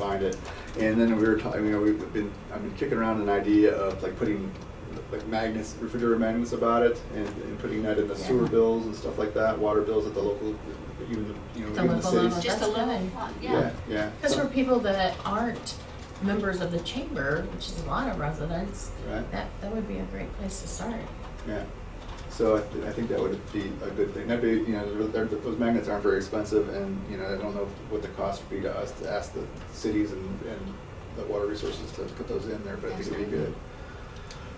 behind it. And then we were talking, you know, we've been, I've been kicking around an idea of like putting like magnets, refrigerator magnets about it and, and putting that in the sewer Yeah. bills and stuff like that, water bills at the local, even the, you know, even The the local cities. level. Just a Oh, That's little good. fun, Yeah, yeah. yeah. Because for people that aren't members of the chamber, which is a lot of residents, Right, that, that would be a great place to start. yeah. So I, th- I think that would be a good thing. That'd be, you know, they're- they're- those magnets aren't very expensive and, you know, I don't know what the cost would be to us to ask the cities and, and the water resources to put those in there, but I think it'd be good.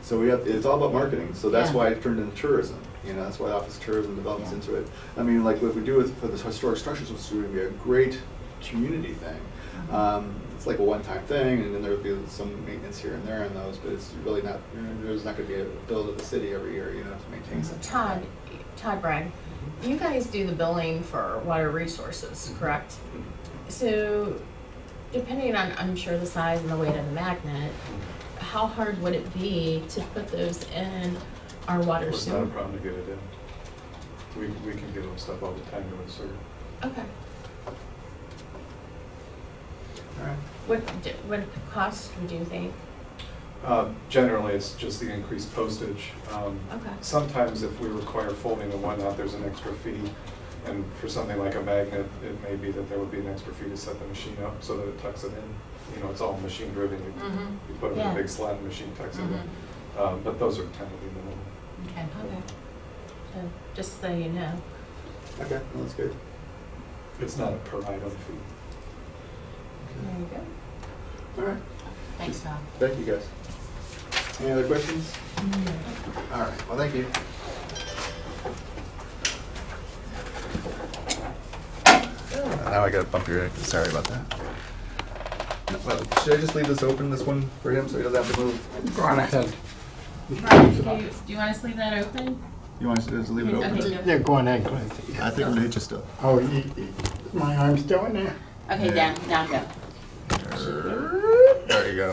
So we have, it's all about marketing, so that's Yeah. why it turned into tourism, you know, that's why Office of Tourism develops Yeah. into it. I mean, like what we do with, for this historic structures institute would be a great community thing. Mhm. Mm-hmm. Um, it's like a one-time thing, and then there would be some maintenance here and there on those, but it's really not, you know, there's not gonna be a build of the city every year, you know, to Mm-hmm. maintain So something. Todd, Todd Bragg, you guys do the billing for water resources, correct? So depending on, I'm sure the size and the weight of the magnet, how hard would it be to put those in our water It's not a sewer? problem to get it in. We, we can give them stuff all the time to insert. Okay. All right. What, d- what cost would you think? Uh, Generally, it's just the increased postage. Um, Okay. Sometimes if we require folding and whatnot, there's an extra fee. And for something like a magnet, it may be that there would be an extra fee to set the machine up so that it tucks it in. You know, it's all machine driven. You Mhm. you put it in Yeah. a big slot, the machine tucks it Mhm. in. Um, But those are kind of the minimal. Okay. Okay. So just so you know. Okay, well, that's good. It's not a per item fee. There you go. All right, Thanks, Tom. thank you guys. Any other questions? All right, well, thank you. Oh, Now I gotta bump your, sorry about that. Well, Should I just leave this open, this one for him, so he doesn't have to move? Go on ahead. Brian, do you, do you want us to leave that open? You want us to just leave it Okay, open? go. Yeah, go on ahead, go ahead. I think I'm gonna hit you still. Oh, you, you- my arm's still in there? Okay, Yeah. down, now go. There you go.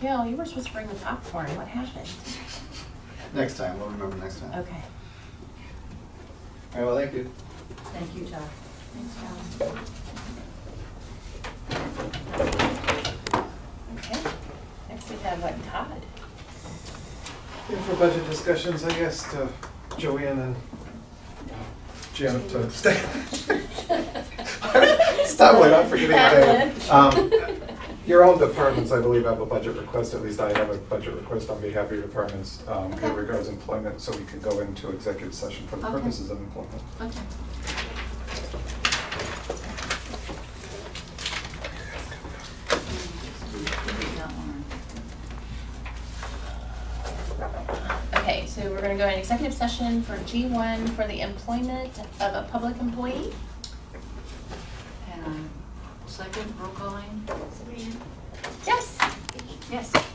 Gail, you were supposed to bring the popcorn. What happened? Next time, we'll remember next time. All Okay. right, well, thank you. Thank you, Todd. Thanks, Todd. Okay. Next we have like Todd. Yeah, for budget discussions, I asked uh, Joanne and uh, Janet to stay. Stop it, I'm forgetting that. Um, Your own departments, I believe, have a budget request, at least I have a budget request on behalf of your departments um, in regards to employment, so we can go into executive session for the Okay. purposes of employment. Okay. Okay, so we're gonna go in executive session for G one for the employment of a public employee. And second, roll calling. Yes. Yes.